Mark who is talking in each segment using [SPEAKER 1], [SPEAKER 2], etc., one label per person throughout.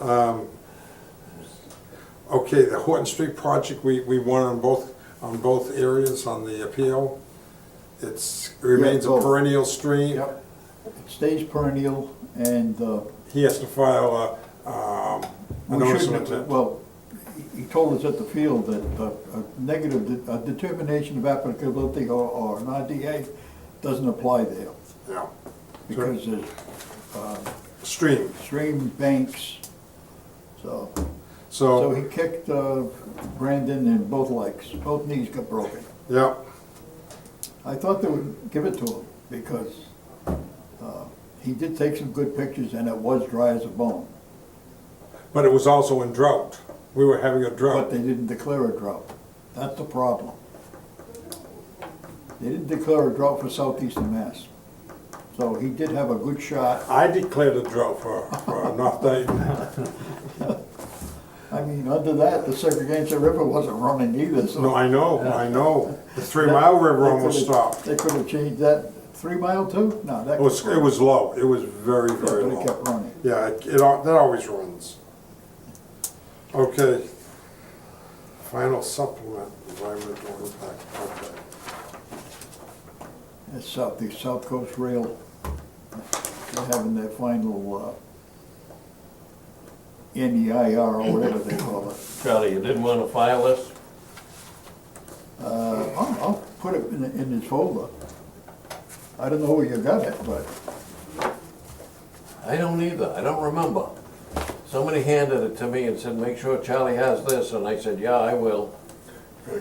[SPEAKER 1] Um, Okay, the Horton Street project, we, we won on both, on both areas on the appeal. It's, remains a
[SPEAKER 2] both.
[SPEAKER 1] perennial stream.
[SPEAKER 2] Yep. It stays perennial and, uh,
[SPEAKER 1] He has to file a, um, a
[SPEAKER 2] we
[SPEAKER 1] notice of
[SPEAKER 2] shouldn't, have-
[SPEAKER 1] intent.
[SPEAKER 2] well, he- he told us at the field that uh, a negative, de- a determination of applicability or, or an IDA doesn't apply there.
[SPEAKER 1] Yeah.
[SPEAKER 2] Because there's
[SPEAKER 1] Stream,
[SPEAKER 2] stream banks, so, so
[SPEAKER 1] so,
[SPEAKER 2] he kicked, uh, Brandon in both legs, both knees got broken.
[SPEAKER 1] yeah,
[SPEAKER 2] I thought they would give it to him because uh, he did take some good pictures and it was dry as a bone.
[SPEAKER 1] but it was also in drought. We were having a
[SPEAKER 2] But
[SPEAKER 1] drought.
[SPEAKER 2] they didn't declare a drought. That's the problem. They didn't declare a drought for southeastern Mass. So he did have a good shot.
[SPEAKER 1] I declared a drought for, for North Dayton.
[SPEAKER 2] I mean, under that, the Segregated River wasn't running either, so.
[SPEAKER 1] No, I know, I know. The Three Mile River almost
[SPEAKER 2] They could've-
[SPEAKER 1] stopped.
[SPEAKER 2] They could have changed that three mile too? No, that.
[SPEAKER 1] It was, it was low, it was very, very
[SPEAKER 2] But
[SPEAKER 1] low.
[SPEAKER 2] it kept running.
[SPEAKER 1] Yeah, it, it al- that always runs. Okay. Final supplement, environmental impact, okay.
[SPEAKER 2] It's South, the South Coast Rail, they're having their final, uh, NEIR or whatever they call it.
[SPEAKER 3] Charlie, you didn't want to file this?
[SPEAKER 2] Uh, I'll, I'll put it in, in his folder. I don't know where you got it, but
[SPEAKER 3] I don't either, I don't remember. Somebody handed it to me and said, make sure Charlie has this, and I said, yeah, I will.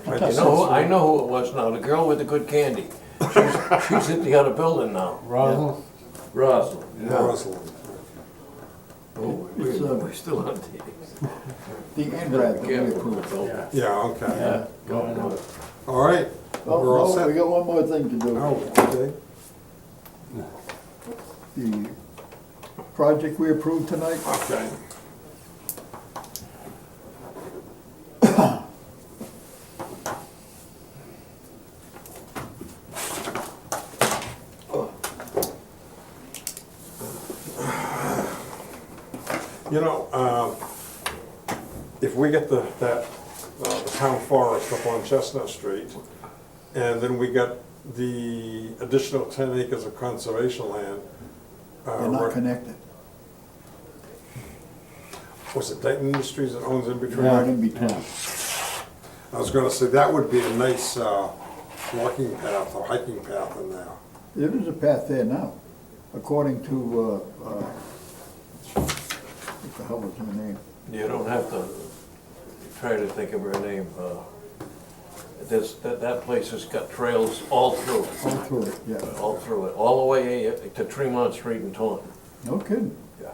[SPEAKER 1] I
[SPEAKER 3] You
[SPEAKER 1] just-
[SPEAKER 3] know, who- I know who it was now, the girl with the good candy. She's she's at the other building now,
[SPEAKER 4] Rosal,
[SPEAKER 3] Rosalind. yeah.
[SPEAKER 1] Rosalind.
[SPEAKER 3] Oh, we-
[SPEAKER 2] It's, uh,
[SPEAKER 3] We're still on TV.
[SPEAKER 2] the NRAD that we approved.
[SPEAKER 3] Yeah,
[SPEAKER 1] Yeah, okay,
[SPEAKER 3] go on.
[SPEAKER 1] all right,
[SPEAKER 2] Oh,
[SPEAKER 1] we're all
[SPEAKER 2] no, we
[SPEAKER 1] set.
[SPEAKER 2] got one more thing to
[SPEAKER 1] Oh,
[SPEAKER 2] do.
[SPEAKER 1] okay,
[SPEAKER 2] The project we approved tonight,
[SPEAKER 1] okay. You know, um, if we get the, that, uh, the town forest up on Chestnut Street, and then we got the additional ten acres of conservation land. uh,
[SPEAKER 2] they're not
[SPEAKER 1] right-
[SPEAKER 2] connected.
[SPEAKER 1] Was it Dayton Industries that owns in between?
[SPEAKER 2] They're in between.
[SPEAKER 1] I was gonna say, that would be a nice, uh, walking path or hiking path in there.
[SPEAKER 2] There is a path there now, according to, uh, uh, what the hell was her name?
[SPEAKER 3] You don't have to try to think of her name. uh, This, that, that place has got trails all through it.
[SPEAKER 2] All through it, yeah.
[SPEAKER 3] All through it, all the way to Tremont Street in Taunton.
[SPEAKER 2] No kidding.
[SPEAKER 3] Yeah.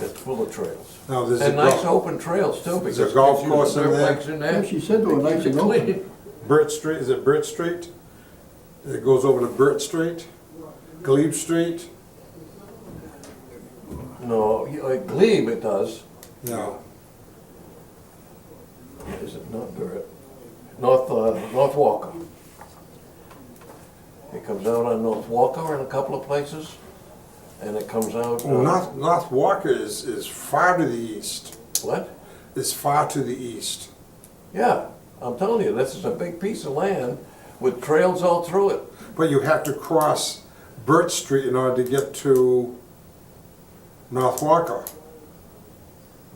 [SPEAKER 3] It's full of trails.
[SPEAKER 1] Now, there's a
[SPEAKER 3] And nice
[SPEAKER 1] golf,
[SPEAKER 3] open trails too.
[SPEAKER 1] There's a
[SPEAKER 3] because
[SPEAKER 1] golf
[SPEAKER 3] gives you the
[SPEAKER 1] course in there.
[SPEAKER 3] dirtbags in
[SPEAKER 2] Yeah, she said they were
[SPEAKER 3] They
[SPEAKER 2] nice
[SPEAKER 3] keep
[SPEAKER 2] and
[SPEAKER 3] it
[SPEAKER 2] open.
[SPEAKER 3] clean.
[SPEAKER 1] Burt Street, is it Burt Street? It goes over to Burt Street, Glebe Street?
[SPEAKER 3] No, you- like Glebe it does,
[SPEAKER 1] No,
[SPEAKER 3] is it not Barrett? North, uh, North Walker. It comes out on North Walker in a couple of places, and it comes out.
[SPEAKER 1] well,
[SPEAKER 3] uh,
[SPEAKER 1] Oh, North, North Walker is, is far to the east,
[SPEAKER 3] What?
[SPEAKER 1] It's far to the east.
[SPEAKER 3] Yeah, I'm telling you, this is a big piece of land with trails all through it.
[SPEAKER 1] But you have to cross Burt Street in order to get to North Walker,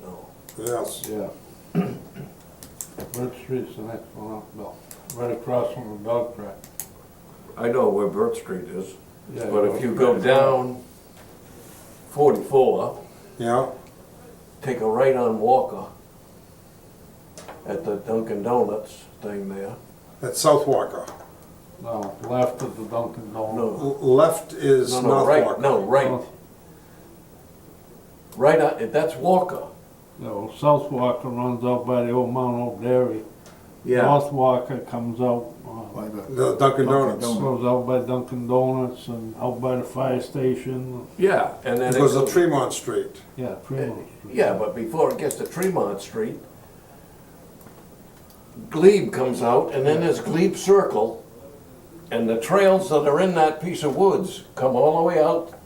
[SPEAKER 3] No,
[SPEAKER 1] yes.
[SPEAKER 4] yeah. Bird Street's the next one up, Bill, right across from the dog track.
[SPEAKER 3] I know where Burt Street is,
[SPEAKER 4] Yeah,
[SPEAKER 3] but if
[SPEAKER 4] Burt
[SPEAKER 3] you go
[SPEAKER 4] Street.
[SPEAKER 3] down forty-four,
[SPEAKER 1] Yeah,
[SPEAKER 3] take a right on Walker at the Dunkin' Donuts thing there.
[SPEAKER 1] that's South Walker.
[SPEAKER 4] No, left of the Dunkin' Donuts.
[SPEAKER 3] No,
[SPEAKER 1] L- Left is
[SPEAKER 3] no,
[SPEAKER 1] North
[SPEAKER 3] no,
[SPEAKER 1] Walker.
[SPEAKER 3] right, no, right, right on, that's Walker.
[SPEAKER 4] No, South Walker runs out by the old Mount Old Dairy. North Walker comes out, uh,
[SPEAKER 2] By the-
[SPEAKER 1] The Dunkin'
[SPEAKER 2] Dunkin'
[SPEAKER 1] Donuts.
[SPEAKER 2] Donuts.
[SPEAKER 4] goes out by Dunkin' Donuts and out by the fire station,
[SPEAKER 3] Yeah, and then
[SPEAKER 1] It
[SPEAKER 3] it
[SPEAKER 1] goes to
[SPEAKER 3] goes-
[SPEAKER 1] Tremont Street.
[SPEAKER 4] yeah, Fremont Street.
[SPEAKER 3] Eh, Yeah, but before it gets to Tremont Street, Glebe comes out, and then there's Glebe Circle, And the trails that are in that piece of woods come all the way out